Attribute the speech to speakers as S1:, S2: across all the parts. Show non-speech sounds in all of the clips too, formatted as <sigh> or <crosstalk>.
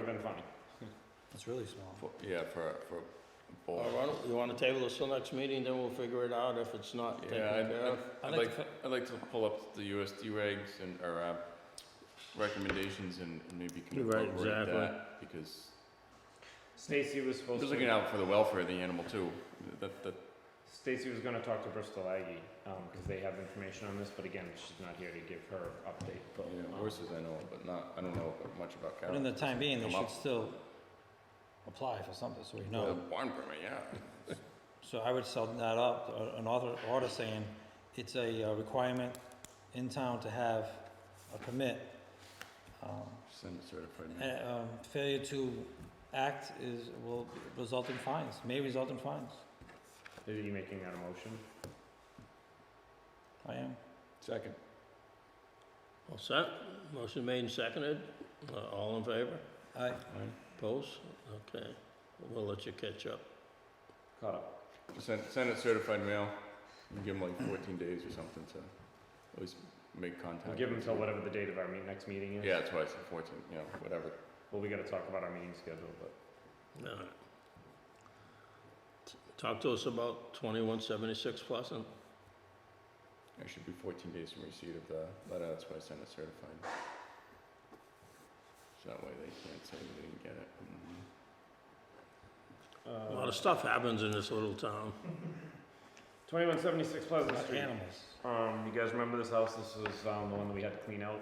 S1: Vine.
S2: It's really small.
S3: For- Yeah, for, for
S2: Oh,
S4: All
S3: both.
S4: right, you want to table this till next meeting, then we'll figure it out if it's not taken
S3: Yeah, I'd-
S4: care of?
S3: I'd, I'd like, I'd like to pull up the USD regs and, or, uh, recommendations and and maybe can
S4: Right,
S3: incorporate
S4: exactly.
S3: that, because
S1: Stacy was
S3: I
S1: supposed
S3: was looking
S1: to,
S3: out for the welfare of the animal too, that, that,
S1: Stacy was gonna talk to Bristol Aggie, um, cause they have information on this, but again, she's not here to give her update, but.
S3: you know,
S1: um,
S3: horses I know, but not, I don't know much about
S2: Oh, But in
S3: cattle.
S2: the time being, they
S3: Come
S2: should
S3: up.
S2: still apply for something, so we
S3: The
S2: know.
S3: barn permit, yeah.
S2: So I would sell that up, uh, an author, order saying it's a uh, requirement in town to have a permit. Um,
S3: Send it certified. mail.
S2: and, um, failure to act is, will result in fines, may result in fines.
S1: Are you making that a motion?
S2: I am.
S3: Second.
S4: All set, motion made and seconded, Uh, all in favor?
S2: I,
S4: Opposed? Okay, we'll let you catch up.
S1: Caught up.
S3: Send, send it certified mail, and give them like fourteen days or something to at least make contact.
S1: We'll give them till whatever the date of our meet, next meeting is.
S3: Yeah, that's why I said fourteen, you know, whatever.
S1: Well, we gotta talk about our meeting schedule, but.
S4: All right. T- Talk to us about 2176 Pleasant.
S3: It should be fourteen days from receipt of the letter, that's why I sent it certified. So that way they can't say they didn't get it.
S1: uh,
S4: A lot of stuff happens in this little town.
S1: Twenty-one seventy-six Pleasant
S2: about
S1: Oh, Street.
S2: animals.
S1: Um, you guys remember this house? This was, um, the one that we had to clean out.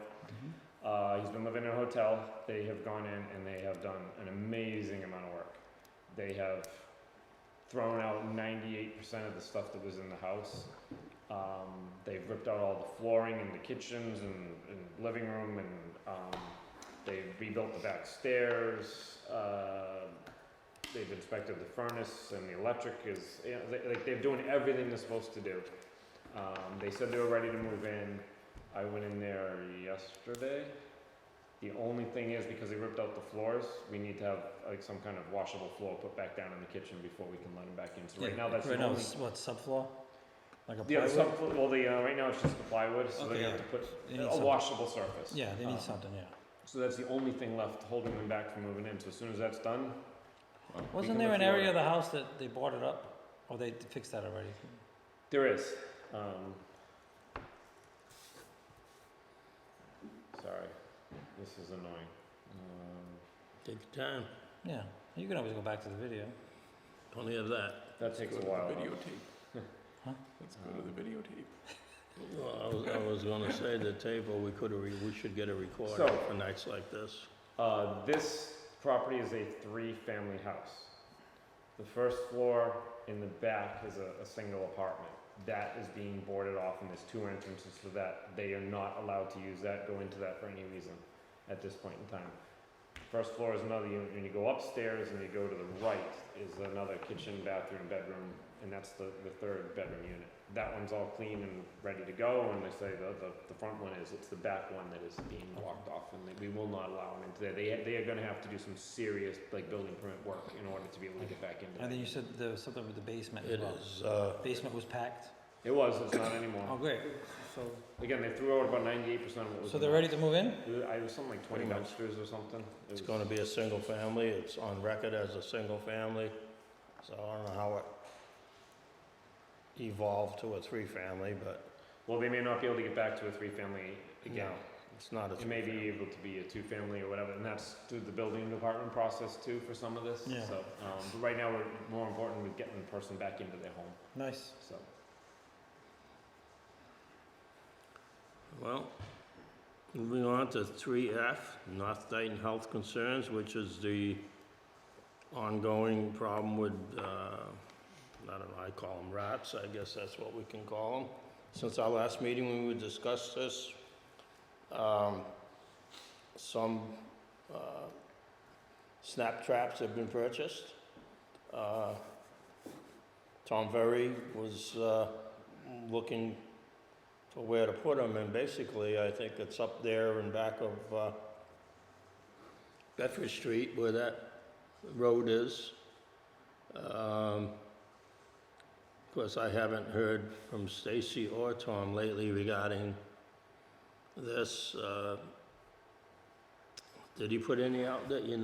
S1: Uh, he's been living in a hotel. They have gone in and they have done an amazing amount of work. They have thrown out ninety-eight percent of the stuff that was in the house. Um, they've ripped out all the flooring in the kitchens and, and living room and, um, they've rebuilt the back stairs. Uh, they've inspected the furnace and the electric is, you know, they, like, they're doing everything they're supposed to do. Um, they said they were ready to move in. I went in there yesterday. The only thing is because they ripped out the floors, we need to have like some kind of washable floor put back down in the kitchen before we can let them back in. So right now, that's the
S2: Right now,
S1: only.
S2: it's what, subfloor? Like a
S1: The other
S2: plywood?
S1: sub, well, the, uh, right now it's just the plywood, so
S2: Okay,
S1: they
S2: yeah.
S1: have to put
S2: They need
S1: a
S2: something.
S1: washable surface.
S2: Yeah, they
S1: Um,
S2: need something, yeah.
S1: So that's the only thing left holding them back from moving in. So as soon as that's done,
S3: Wow.
S2: Wasn't
S1: can
S2: there
S1: lift
S2: an
S1: you
S2: area
S1: up.
S2: of the house that they boarded up? Or they fixed that already?
S1: there is, um. Sorry, this is annoying. Um,
S4: Take your time,
S2: Yeah, you can always go back to the video.
S4: plenty of that.
S1: That takes a
S3: Let's go
S1: while.
S3: to the
S1: though. <laughs> Uh,
S2: Huh?
S3: Videotape. Let's go to the videotape.
S4: Well, I was, I was gonna say the table, we could, we should get a recorder
S1: So-
S4: for nights like this.
S1: Uh, this property is a three-family house. The first floor in the back is a, a single apartment. That is being boarded off and there's two entrances to that. They are not allowed to use that, go into that for any reason at this point in time. First floor is another unit, and you go upstairs and you go to the right is another kitchen, bathroom, bedroom, and that's the, the third bedroom unit. That one's all clean and ready to go, and they say the, the, the front one is, it's the back one that is being blocked off, and they- we will not allow them into there. They, they are gonna have to do some serious, like, building permit work in order to be able to get back into
S2: And then you
S1: that.
S2: said there was something with the basement as
S4: It
S2: well.
S4: is, uh,
S2: Basement was packed?
S1: It was, it's not
S2: Oh,
S1: anymore.
S2: great. So,
S1: Again, they threw out about ninety-eight percent of what was.
S2: so
S1: in
S2: they're
S1: there.
S2: ready to move in?
S1: It was- I, it was something like twenty
S3: Pretty
S1: dumpsters or something. It
S4: It's
S1: was-
S4: gonna be a single family, it's on record as a single family, so I don't know how it evolved to a three-family, but
S1: Well, they may not be able to get back to a three-family again.
S4: No. it's not a
S1: It may be
S4: three-family.
S1: able to be a two-family or whatever, and that's through the building department process too for some of this.
S2: Yeah.
S1: So, um, but right now, we're more important with getting the person back into their home,
S2: Nice.
S1: so.
S4: Well, moving on to three F, North Dayton Health Concerns, which is the ongoing problem with, uh, I don't know, I call them rats, I guess that's what we can call them. Since our last meeting, when we discussed this, um, some, uh, snap traps have been purchased. Uh, Tom Ferry was, uh, looking for where to put them, and basically, I think it's up there in back of, uh, Bedford Street where that road is. Um, of course, I haven't heard from Stacy or Tom lately regarding this, uh, did he put any out that you